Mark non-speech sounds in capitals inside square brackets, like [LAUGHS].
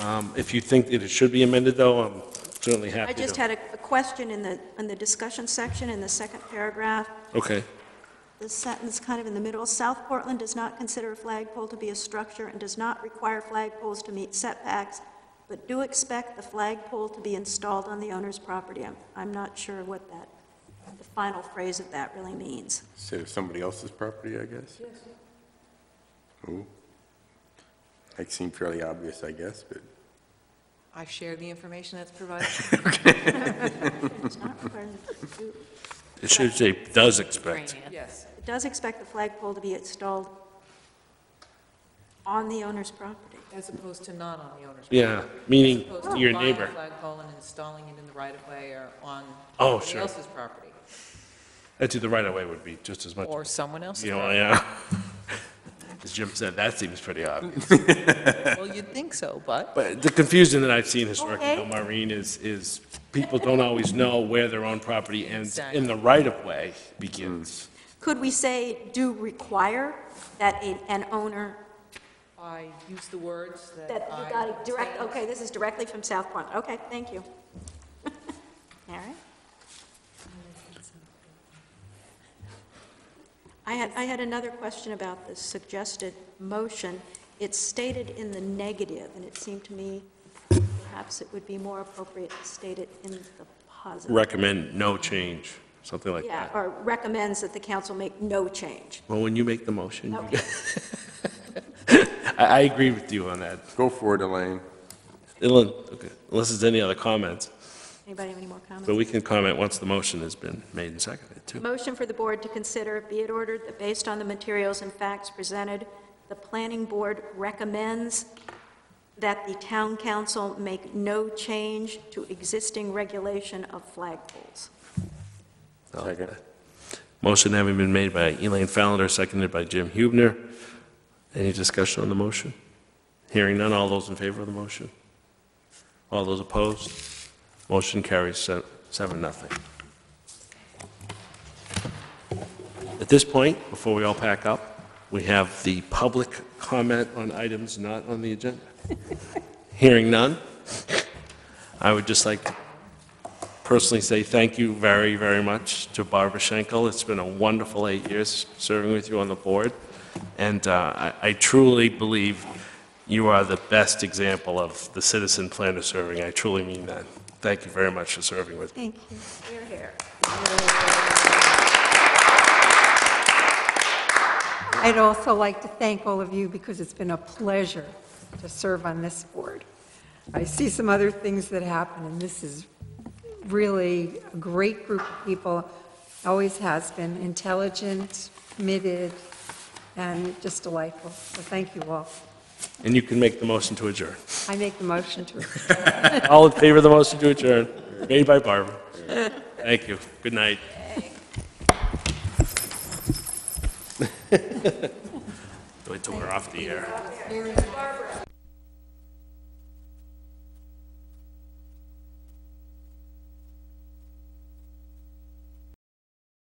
Um, If you think that it should be amended, though, I'm certainly I happy to. just had a a question in the, in the discussion section, in the second paragraph, Okay, the sentence kind of in the middle, "South Portland does not consider a flagpole to be a structure and does not require flagpoles to meet setbacks, but do expect the flagpole to be installed on the owner's property." I'm, I'm not sure what that, the final phrase of that really means. Consider somebody else's property, I guess? Yes. Ooh. That seemed fairly obvious, I guess, but I've shared the information [LAUGHS] that's provided. It's not required to do- it should say, does expect. Yes. It does expect the flagpole to be installed on the owner's property. As opposed to not on the owner's. Yeah, meaning property. As opposed to your buying a neighbor. flagpole and installing it in the right-of-way or on Oh, somebody sure. else's property, That's the right away would be just as much. or someone else's. You know, yeah. [LAUGHS] As Jim said, that seems pretty obvious. Well, you'd think so, but But the confusion that I've seen historically, though, Okay. Maureen, is, is people don't always know where their own property ends Exactly. and the right-of-way begins. Could we say, "Do require that a- an owner I use the words that I. That you got it direct, obtained. okay, this is directly from South Point, okay, thank you. [LAUGHS] All right. I had, I had another question about the suggested motion. It's stated in the negative, and it seemed to me perhaps it would be more appropriate to state it in the positive. Recommend no change, something like Yeah, that. or recommends that the council make no change. Well, when you make the motion, you- Okay, [LAUGHS] I, I agree with you on that. go for it, Elaine. Unless okay, unless there's any other comments, anybody have any more comments? but we can comment once the motion has been made and seconded, too. Motion for the board to consider, be it ordered that based on the materials and facts presented, the planning board recommends that the town council make no change to existing regulation of flagpoles. Second. Motion having been made by Elaine Fallender, seconded by Jim Hubner. Any discussion on the motion? Hearing none, all those in favor of the motion? All those opposed? Motion carries se- seven, nothing. At this point, before we all pack up, we have the public comment on items not on the agenda. Hearing none, I would just like to personally say thank you very, very much to Barbara Schenkel. It's been a wonderful eight years serving with you on the board, and uh, I I truly believe you are the best example of the citizen planner serving. I truly mean that. Thank you very much for serving with me. Thank you. Here, here. I'd also like to thank all of you because it's been a pleasure to serve on this board. I see some other things that happen, and this is really a great group of people, always has been, intelligent, committed, and just delightful. So thank you all. And you can make the motion to adjourn. I make the motion [LAUGHS] to All in favor of the motion to adjourn, made by Barbara. Thank you. Good night. [LAUGHS] We took her off the air.